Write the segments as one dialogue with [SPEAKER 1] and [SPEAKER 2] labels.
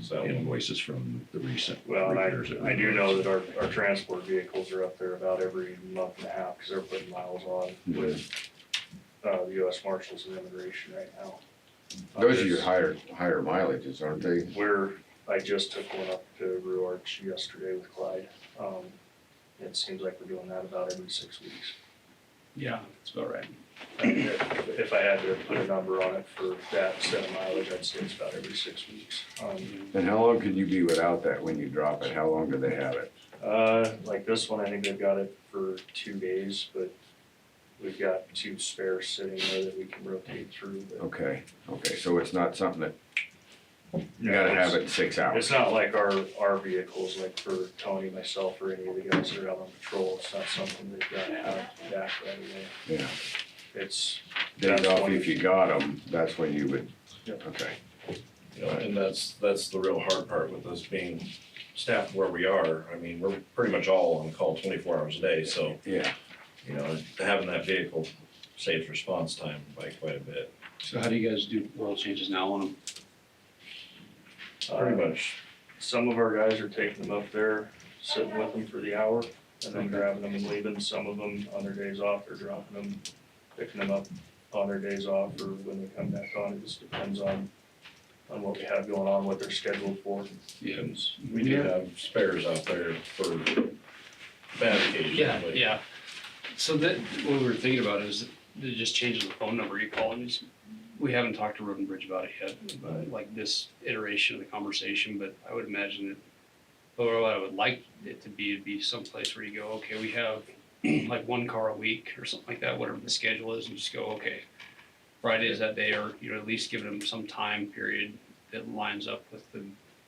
[SPEAKER 1] so.
[SPEAKER 2] invoices from the recent.
[SPEAKER 1] Well, and
[SPEAKER 2] repairs that
[SPEAKER 1] I,
[SPEAKER 2] we
[SPEAKER 1] I do
[SPEAKER 2] did.
[SPEAKER 1] know that our, our transport vehicles are up there about every month and a half, cause they're putting miles on with, uh, the US Marshals and Immigration right now.
[SPEAKER 3] Those are your higher, higher mileages, aren't they?
[SPEAKER 1] Where I just took one up to Rue Arch yesterday with Clyde, um, it seems like we're doing that about every six weeks. Uh,
[SPEAKER 2] Yeah, it's about right.
[SPEAKER 1] If if I had to put a number on it for that set of mileage, I'd say it's about every six weeks. Um,
[SPEAKER 3] And how long can you be without that when you drop it? How long do they have it?
[SPEAKER 1] Uh, like this one, I think they've got it for two days, but we've got two spares sitting there that we can rotate through, but.
[SPEAKER 3] Okay, okay, so it's not something that, you gotta have it in six
[SPEAKER 1] It's
[SPEAKER 3] hours.
[SPEAKER 1] not like our, our vehicles, like for Tony, myself, or any of the guys that are out on patrol, it's not something they've got to have back right away.
[SPEAKER 3] Yeah,
[SPEAKER 1] It's,
[SPEAKER 3] days
[SPEAKER 1] That's
[SPEAKER 3] off
[SPEAKER 1] when-
[SPEAKER 3] if you got them, that's when you would,
[SPEAKER 1] Yeah.
[SPEAKER 3] okay.
[SPEAKER 4] You know, and that's, that's the real hard part with us being staffed where we are. I mean, we're pretty much all on call twenty-four hours a day, so,
[SPEAKER 3] Yeah,
[SPEAKER 4] you know, having that vehicle saves response time by quite a bit.
[SPEAKER 2] So how do you guys do oil changes now on them?
[SPEAKER 4] Pretty
[SPEAKER 1] uh,
[SPEAKER 4] much,
[SPEAKER 1] some of our guys are taking them up there, sitting with them for the hour, and then grabbing them and leaving. Some of them on their days off, they're dropping them, picking them up on their days off or when they come back on. It just depends on, on what we have going on, what they're scheduled for.
[SPEAKER 2] Yeah.
[SPEAKER 4] we do have spares out there for bad occasions.
[SPEAKER 2] Yeah,
[SPEAKER 4] but-
[SPEAKER 2] yeah. So that, what we were thinking about is it just changes the phone number you call. and just- We haven't talked to Roden Bridge about it yet, but like this iteration of the conversation, but I would imagine that, or what I would like it to be, would be someplace where you go, okay, we have like one car a week or something like that, whatever the schedule is, and just go, okay, Friday is that day, or, you know, at least give them some time period that lines up with the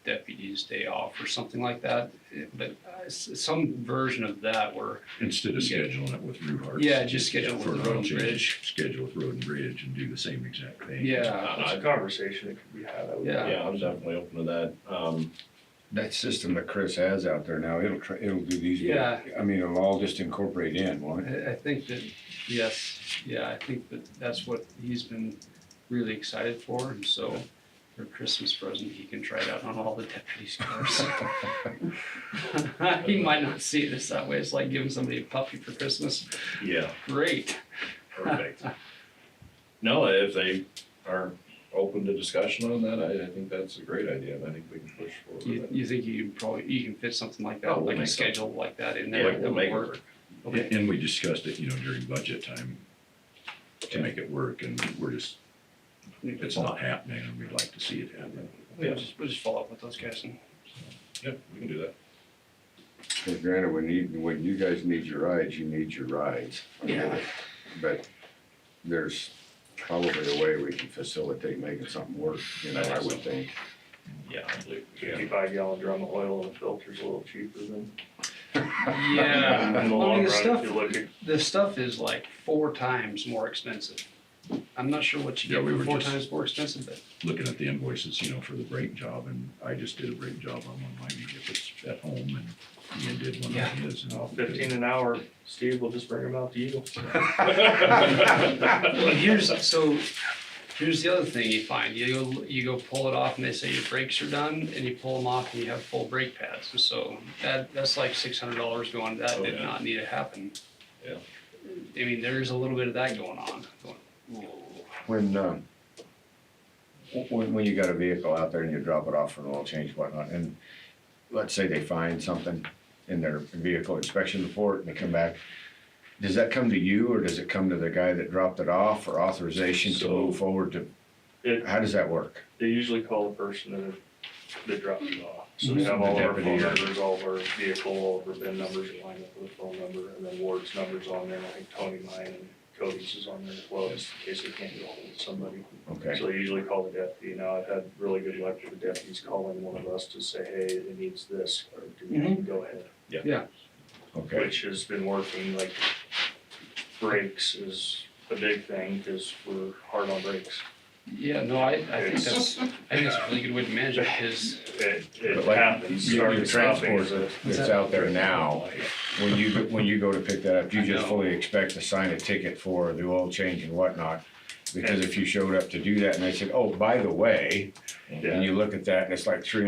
[SPEAKER 2] deputy's day off or something like that. It- But uh, s- some version of that where,
[SPEAKER 5] Instead of
[SPEAKER 2] Yeah.
[SPEAKER 5] scheduling it with Drew Hart.
[SPEAKER 2] yeah, just schedule
[SPEAKER 5] For
[SPEAKER 2] with the
[SPEAKER 5] oil
[SPEAKER 2] road and
[SPEAKER 5] change,
[SPEAKER 2] bridge.
[SPEAKER 5] Schedule with Road and Bridge and do the same exact thing.
[SPEAKER 2] Yeah,
[SPEAKER 1] It's a
[SPEAKER 4] I-
[SPEAKER 1] conversation that could be had. I would-
[SPEAKER 2] Yeah.
[SPEAKER 4] Yeah, I'm definitely open to that. Um,
[SPEAKER 3] that system that Chris has out there now, it'll, tr- it'll do these.
[SPEAKER 2] Yeah.
[SPEAKER 3] I mean, it'll all just incorporate in, won't it?
[SPEAKER 2] I, I think that, yes, yeah, I think that that's what he's been really excited for, and so for Christmas present, he can try it out on all the deputies' cars. He might not see this that way, it's like giving somebody a puppy for Christmas,
[SPEAKER 4] yeah,
[SPEAKER 2] great.
[SPEAKER 4] perfect. No, if they are open to discussion on that, I, I think that's a great idea, and I think we can push forward.
[SPEAKER 2] You,
[SPEAKER 4] with it.
[SPEAKER 2] you think you can probably, you can fit something like
[SPEAKER 4] Oh,
[SPEAKER 2] that,
[SPEAKER 4] we'll
[SPEAKER 2] like a
[SPEAKER 4] make something.
[SPEAKER 2] schedule like that in
[SPEAKER 4] Yeah,
[SPEAKER 2] there
[SPEAKER 4] we'll
[SPEAKER 2] that
[SPEAKER 4] make
[SPEAKER 2] would
[SPEAKER 4] it
[SPEAKER 2] work?
[SPEAKER 4] work.
[SPEAKER 2] Okay.
[SPEAKER 5] And and we discussed it, you know, during budget time to
[SPEAKER 4] Yeah.
[SPEAKER 5] make it work and we're just, it's not happening and we'd like to see it happen.
[SPEAKER 2] We'll just, we'll just follow up with those guys and.
[SPEAKER 4] Yep, we can do that.
[SPEAKER 3] Because granted, when you, when you guys need your rides, you need your rides. I get
[SPEAKER 2] Yeah.
[SPEAKER 3] it. But there's probably a way we can facilitate making something work, you know, I would think.
[SPEAKER 4] Yeah, I believe.
[SPEAKER 1] Fifty-five gallon drum of oil and the filter's a little cheaper than.
[SPEAKER 2] Yeah.
[SPEAKER 1] In the
[SPEAKER 2] Well, I mean, the
[SPEAKER 1] long run, if
[SPEAKER 2] stuff-
[SPEAKER 1] you look at
[SPEAKER 2] The stuff is like four times more expensive. I'm not sure what you
[SPEAKER 5] Yeah,
[SPEAKER 2] get
[SPEAKER 5] we
[SPEAKER 2] for
[SPEAKER 5] were
[SPEAKER 2] four
[SPEAKER 5] just-
[SPEAKER 2] times more expensive, but
[SPEAKER 5] Looking at the invoices, you know, for the brake job and I just did a brake job on one of my vehicles at home and Ian did one on
[SPEAKER 2] Yeah.
[SPEAKER 5] his. and-
[SPEAKER 1] uh, fifteen an hour, Steve, we'll just bring them out to you.
[SPEAKER 2] well, here's, so, here's the other thing you find, you go, you go pull it off and they say your brakes are done, and you pull them off and you have full brake pads, And so that, that's like six hundred dollars going, that
[SPEAKER 4] Oh,
[SPEAKER 2] did
[SPEAKER 4] yeah.
[SPEAKER 2] not need to happen.
[SPEAKER 4] Yeah.
[SPEAKER 2] I mean, there's a little bit of that going on, going, whoa.
[SPEAKER 3] When, um, wh- when, when you got a vehicle out there and you drop it off for an oil change and whatnot, and let's say they find something in their vehicle inspection report and they come back, does that come to you or does it come to the guy that dropped it off for authorization to
[SPEAKER 1] So-
[SPEAKER 3] move forward to,
[SPEAKER 1] It,
[SPEAKER 3] how does that work?
[SPEAKER 1] they usually call the person that, that dropped it off. So we
[SPEAKER 3] Mhm.
[SPEAKER 1] have all of our phone
[SPEAKER 3] Deputy.
[SPEAKER 1] numbers, all of our vehicle, all of our VIN numbers in line up with the phone number, and then Ward's number's on there, and I think Tony mine and Cody's is on there as well, just in case they can't get hold of somebody.
[SPEAKER 3] Okay,
[SPEAKER 1] So they usually call the deputy. Now, I've had really good luck with the deputies calling one of us to say, hey, it needs this, or do we need to go ahead?
[SPEAKER 3] okay,
[SPEAKER 1] which has been working, like brakes is a big thing, cause we're hard on brakes.
[SPEAKER 2] Yeah, no, I, I think that's, I think that's a really good way to manage it, because,
[SPEAKER 1] It, it
[SPEAKER 3] But like,
[SPEAKER 1] happens,
[SPEAKER 3] your-
[SPEAKER 1] starting
[SPEAKER 3] your
[SPEAKER 1] stopping is a.
[SPEAKER 3] transport that's out there now, when you, go- when you go to pick that up, you
[SPEAKER 2] I
[SPEAKER 3] just
[SPEAKER 2] know.
[SPEAKER 3] fully expect to sign a ticket for the oil change and whatnot. Because if you showed up to do that and they said, oh, by the way,
[SPEAKER 1] Yeah.
[SPEAKER 3] and you look at that and it's like three hundred